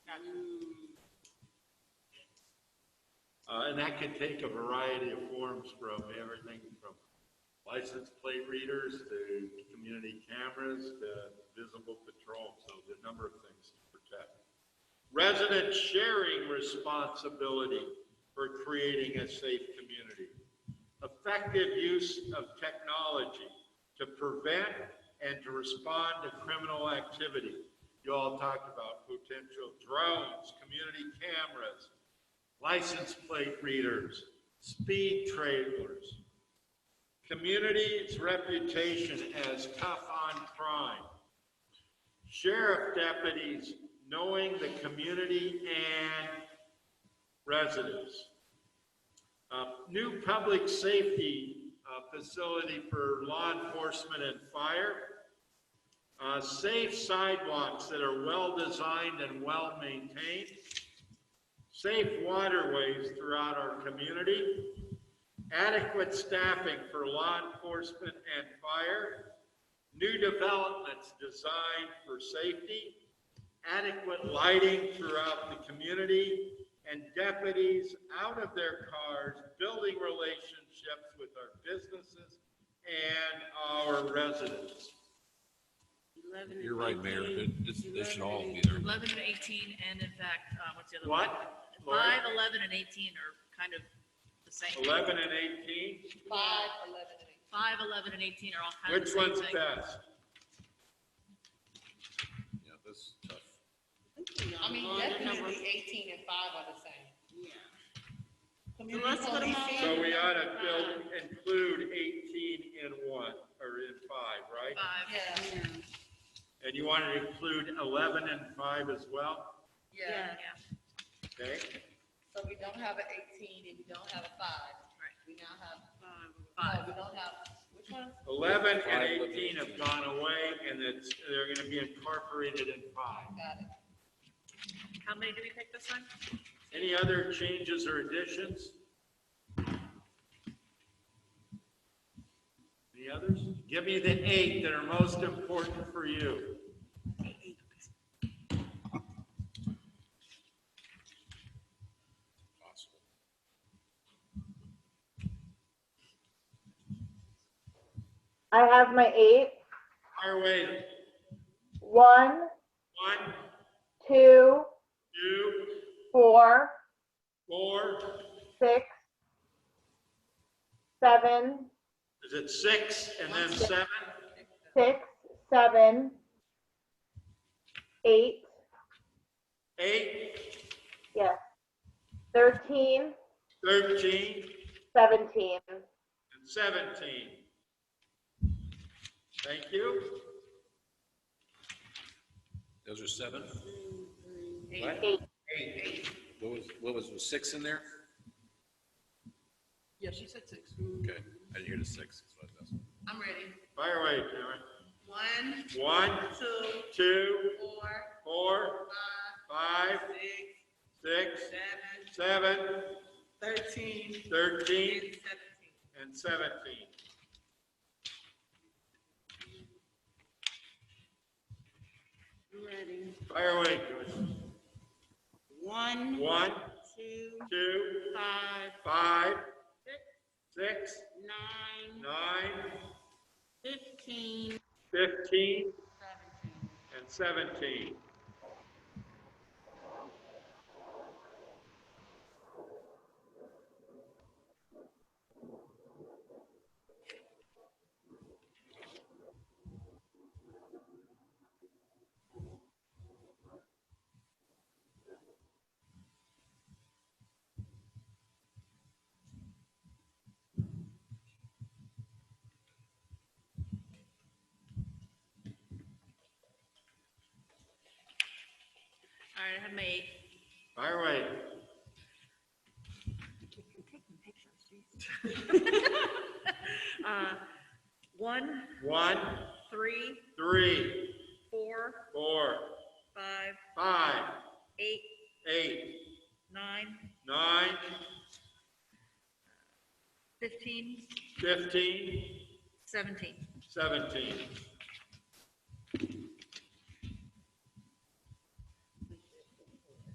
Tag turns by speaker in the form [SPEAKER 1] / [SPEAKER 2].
[SPEAKER 1] Uh, and that could take a variety of forms from everything from license plate readers to community cameras to visible patrol, so the number of things to protect. Resident sharing responsibility for creating a safe community. Effective use of technology to prevent and to respond to criminal activity. You all talked about potential drones, community cameras, license plate readers, speed trailers, community's reputation as tough on crime, sheriff deputies knowing the community and residents, Uh, new public safety uh, facility for law enforcement and fire, Uh, safe sidewalks that are well-designed and well-maintained, safe waterways throughout our community, adequate staffing for law enforcement and fire, new developments designed for safety, adequate lighting throughout the community, and deputies out of their cars, building relationships with our businesses and our residents.
[SPEAKER 2] You're right, Mayor. That- This, this should all be there.
[SPEAKER 3] 11 and 18, and in fact, uh, what's the other?
[SPEAKER 1] What?
[SPEAKER 3] one? Five, 11, and 18 are kind of the same.
[SPEAKER 1] 11 and 18,
[SPEAKER 3] Five, 5, 11, and 18 are all kind of the
[SPEAKER 1] which
[SPEAKER 3] same
[SPEAKER 1] one's
[SPEAKER 3] thing.
[SPEAKER 1] best?
[SPEAKER 2] Yeah, that's tough.
[SPEAKER 4] I mean, definitely eighteen and five are the same. Community
[SPEAKER 5] let's put 'em
[SPEAKER 4] policing,
[SPEAKER 1] So we ought to build, include 18 in one, or in five, right?
[SPEAKER 3] Five.
[SPEAKER 4] Yeah,
[SPEAKER 1] And you want to include 11 and 5 as well,
[SPEAKER 4] yeah,
[SPEAKER 3] Yeah.
[SPEAKER 1] okay?
[SPEAKER 4] so we don't have an eighteen and we don't have a five.
[SPEAKER 3] Right.
[SPEAKER 4] We now have,
[SPEAKER 3] Five.
[SPEAKER 4] no, we don't have, which one?
[SPEAKER 1] 11 and
[SPEAKER 2] Five, 11,
[SPEAKER 1] 18 have
[SPEAKER 2] 18.
[SPEAKER 1] gone away, and it's, they're going to be incorporated in 5.
[SPEAKER 4] Got it.
[SPEAKER 3] How many did we pick this time?
[SPEAKER 1] Any other changes or additions? Any others? Give me the eight that are most important for you.
[SPEAKER 2] Possible.
[SPEAKER 6] I have my eight.
[SPEAKER 1] Fire away.
[SPEAKER 6] One,
[SPEAKER 1] One,
[SPEAKER 6] two,
[SPEAKER 1] two,
[SPEAKER 6] four,
[SPEAKER 1] four,
[SPEAKER 6] six, seven,
[SPEAKER 1] is it six and then seven?
[SPEAKER 6] six, seven, eight,
[SPEAKER 1] Eight,
[SPEAKER 6] yes, thirteen,
[SPEAKER 1] 13,
[SPEAKER 6] seventeen.
[SPEAKER 1] and 17. Thank you.
[SPEAKER 2] Those are seven?
[SPEAKER 3] Eight.
[SPEAKER 6] Eight.
[SPEAKER 2] What was, what was, was six in there?
[SPEAKER 5] Yeah, she said six.
[SPEAKER 2] Okay, I didn't hear the six. so that's-
[SPEAKER 5] I'm ready.
[SPEAKER 1] Fire away, Karen.
[SPEAKER 5] One,
[SPEAKER 1] One,
[SPEAKER 5] two,
[SPEAKER 1] two,
[SPEAKER 5] four,
[SPEAKER 1] four,
[SPEAKER 5] five,
[SPEAKER 1] five,
[SPEAKER 5] six,
[SPEAKER 1] six,
[SPEAKER 5] seven,
[SPEAKER 1] seven,
[SPEAKER 5] thirteen,
[SPEAKER 1] 13,
[SPEAKER 5] and seventeen.
[SPEAKER 1] and 17.
[SPEAKER 5] Ready.
[SPEAKER 1] Fire away, Joyce.
[SPEAKER 5] One,
[SPEAKER 1] One,
[SPEAKER 5] two,
[SPEAKER 1] two,
[SPEAKER 5] five,
[SPEAKER 1] five,
[SPEAKER 5] six,
[SPEAKER 1] six,
[SPEAKER 5] nine,
[SPEAKER 1] nine,
[SPEAKER 5] fifteen, seventeen.
[SPEAKER 1] 15, and 17.
[SPEAKER 3] All right, I have my eight.
[SPEAKER 1] Fire away.
[SPEAKER 3] Uh, One,
[SPEAKER 1] One,
[SPEAKER 3] three,
[SPEAKER 1] three,
[SPEAKER 3] four,
[SPEAKER 1] four,
[SPEAKER 3] five,
[SPEAKER 1] five,
[SPEAKER 3] eight,
[SPEAKER 1] eight,
[SPEAKER 3] nine,
[SPEAKER 1] nine,
[SPEAKER 3] 15,
[SPEAKER 1] 15,
[SPEAKER 3] 17.
[SPEAKER 1] 17.